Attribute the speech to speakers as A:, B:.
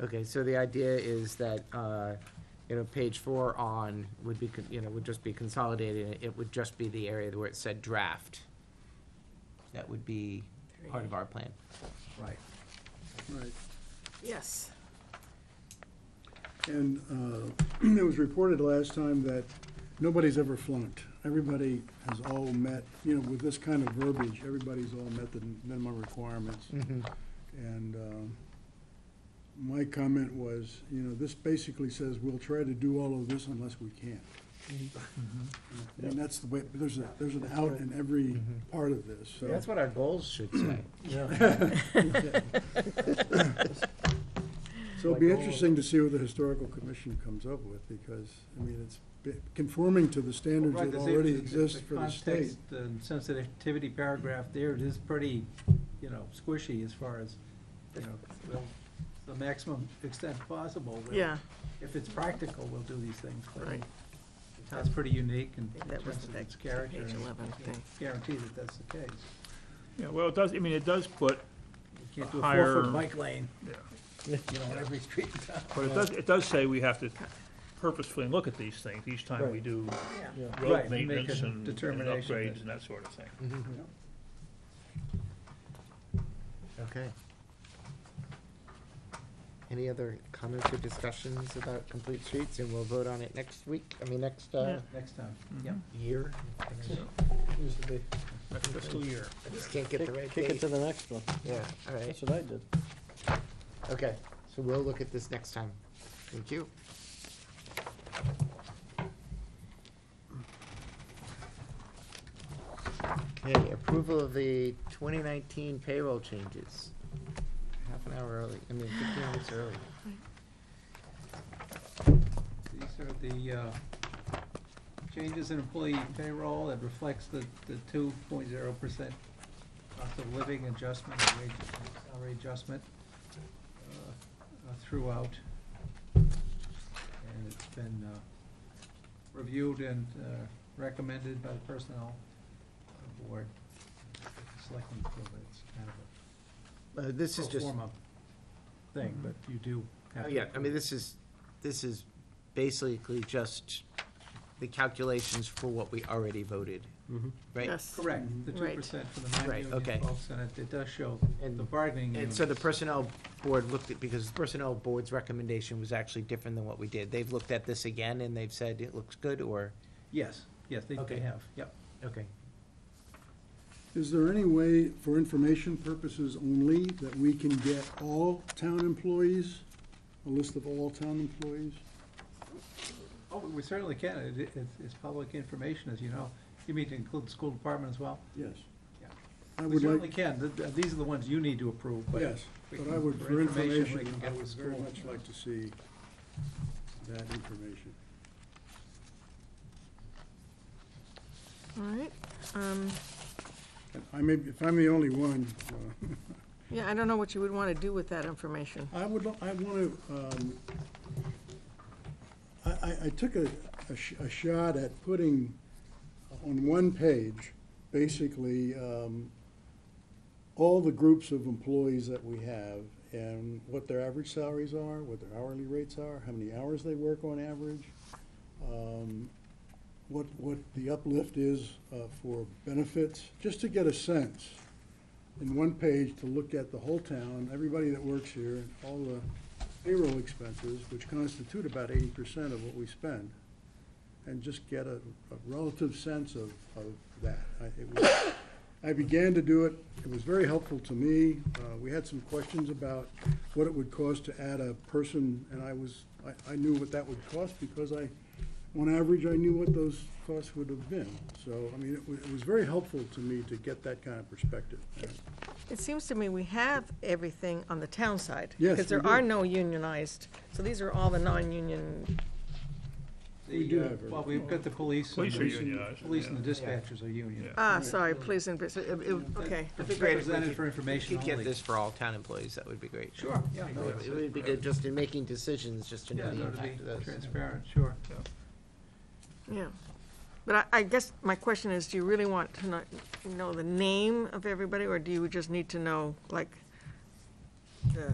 A: Okay, so the idea is that, uh, you know, page four on would be, con- you know, would just be consolidated, it would just be the area where it said draft. That would be part of our plan.
B: Right.
C: Right,
D: Yes.
C: and uh, it was reported last time that nobody's ever flunked. Everybody has all met, you know, with this kind of verbiage, everybody's all met the minimum requirements.
E: Mm-hmm.
C: And um, my comment was, you know, this basically says, we'll try to do all of this unless we can. And that's the way, there's a, there's an out in every part of this, so.
A: That's what our goals should say.
B: Yeah,
C: So it'll be interesting to see what the historical commission comes up with, because, I mean, it's bi- conforming to the standards
B: Right,
C: that
B: 'cause
C: already
B: the-
C: exist for the state.
B: context and sensitivity paragraph there, it is pretty, you know, squishy as far as, you know, we'll, the maximum extent possible. we'll-
D: Yeah,
B: If it's practical, we'll do these things. but
D: Right.
B: That's pretty unique
D: I
B: and
D: think
B: in
D: that was
B: terms
D: the
B: of its
D: next
B: character.
D: page
B: and
D: 11
B: you
D: thing.
B: can't Guarantee that that's the case.
F: Yeah, well, it does, I mean, it does put,
B: You can't do a
F: Higher-
B: four-foot bike lane,
F: Yeah.
B: you know, on every street in town.
F: but it does, it does say we have to purposefully look at these things each time we
C: Right.
F: do
D: yeah.
B: Right,
F: road
B: and make
F: maintenance
B: a
F: and and
B: determination
F: upgrades
B: that-
F: and that sort of thing.
E: Mm-hmm.
A: Mm-hmm. Okay. Any other comments or discussions about complete streets, and we'll vote on it next week, I mean, next, uh,
B: Next time,
D: Mm-hmm.
B: yeah.
A: year?
F: Next fiscal year.
A: I just can't get the right
E: Kick it
A: date.
E: to the next one.
A: Yeah, all right.
E: That's what I did.
A: Okay, so we'll look at this next time. Thank you. Okay, approval of the twenty nineteen payroll changes. Half an hour early, I mean fifteen minutes early.
B: These are the uh, changes in employee payroll that reflects the, the two point zero percent cost of living adjustment, and wage, salary adjustment uh, uh, throughout. And it's been uh, reviewed and uh, recommended by the personnel board, selecting, so it's kind of
A: Uh, this
E: Oh,
A: is
B: a pro
A: just,
B: forma thing, but you do have
A: oh,
B: to.
A: yeah, I mean, this is, this is basically just the calculations for what we already voted,
E: Mm-hmm.
A: right?
D: Yes.
B: Correct,
C: Mm-hmm.
B: the two
D: Right.
B: percent for the
A: Right, okay.
B: non-union folks, and it, it does show
A: And-
B: the bargaining
A: And
B: units.
A: so the personnel board looked at, because the personnel board's recommendation was actually different than what we did. They've looked at this again and they've said it looks good or,
B: Yes, yes, they,
A: Okay.
B: they have, yep.
A: okay.
C: Is there any way, for information purposes only, that we can get all town employees, a list of all town employees?
B: Oh, we certainly can, it, it- it's, it's public information, as you know. You mean to include the school department as well?
C: Yes.
B: Yeah.
C: I
B: We
C: would
B: certainly
C: like,
B: can, Th- th- these are the ones you need to approve, but.
C: yes,
B: we
C: but
B: can-
C: I would, for
B: we
C: information,
B: can
C: I
B: get
C: would
B: the
C: very
B: school.
C: much like to see that information.
D: All right, um,
C: And I may, if I'm the only one, uh,
D: yeah, I don't know what you would want to do with that information.
C: I would, lo- I want to, um, I, I, I took a, a sh- a shot at putting on one page, basically, um, all the groups of employees that we have and what their average salaries are, what their hourly rates are, how many hours they work on average, um, what, what the uplift is uh, for benefits, just to get a sense in one page to look at the whole town, everybody that works here, and all the payroll expenses, which constitute about eighty percent of what we spend, and just get a, a relative sense of, of that. I, it was, I began to do it, it was very helpful to me, uh, we had some questions about what it would cost to add a person, and I was, I, I knew what that would cost, because I, on average, I knew what those costs would have been. So, I mean, it was, it was very helpful to me to get that kind of perspective.
D: It seems to me we have everything on the town side.
C: Yes,
D: Because
C: we
D: there
C: do.
D: are no unionized, so these are all the non-union,
C: We
B: The,
C: do
B: uh,
C: have a-
B: Well, we've got the police. and
F: Police are
B: the-
F: unionized,
B: Police and the
F: yeah.
B: dispatchers are union.
F: Yeah.
D: ah, sorry, please, and, it- it- okay.
B: But
A: be great if we
B: Represented
A: could-
B: for information
A: If you
B: only.
A: could get this for all town employees, that would be great.
B: Sure, yeah. no, it's-
A: It would be good just in making decisions, just to
B: Yeah,
A: know the
B: no, to be
A: impact of those.
B: transparent, sure.
D: Yeah, but I, I guess my question is, do you really want to know, know the name of everybody, or do you just need to know, like, the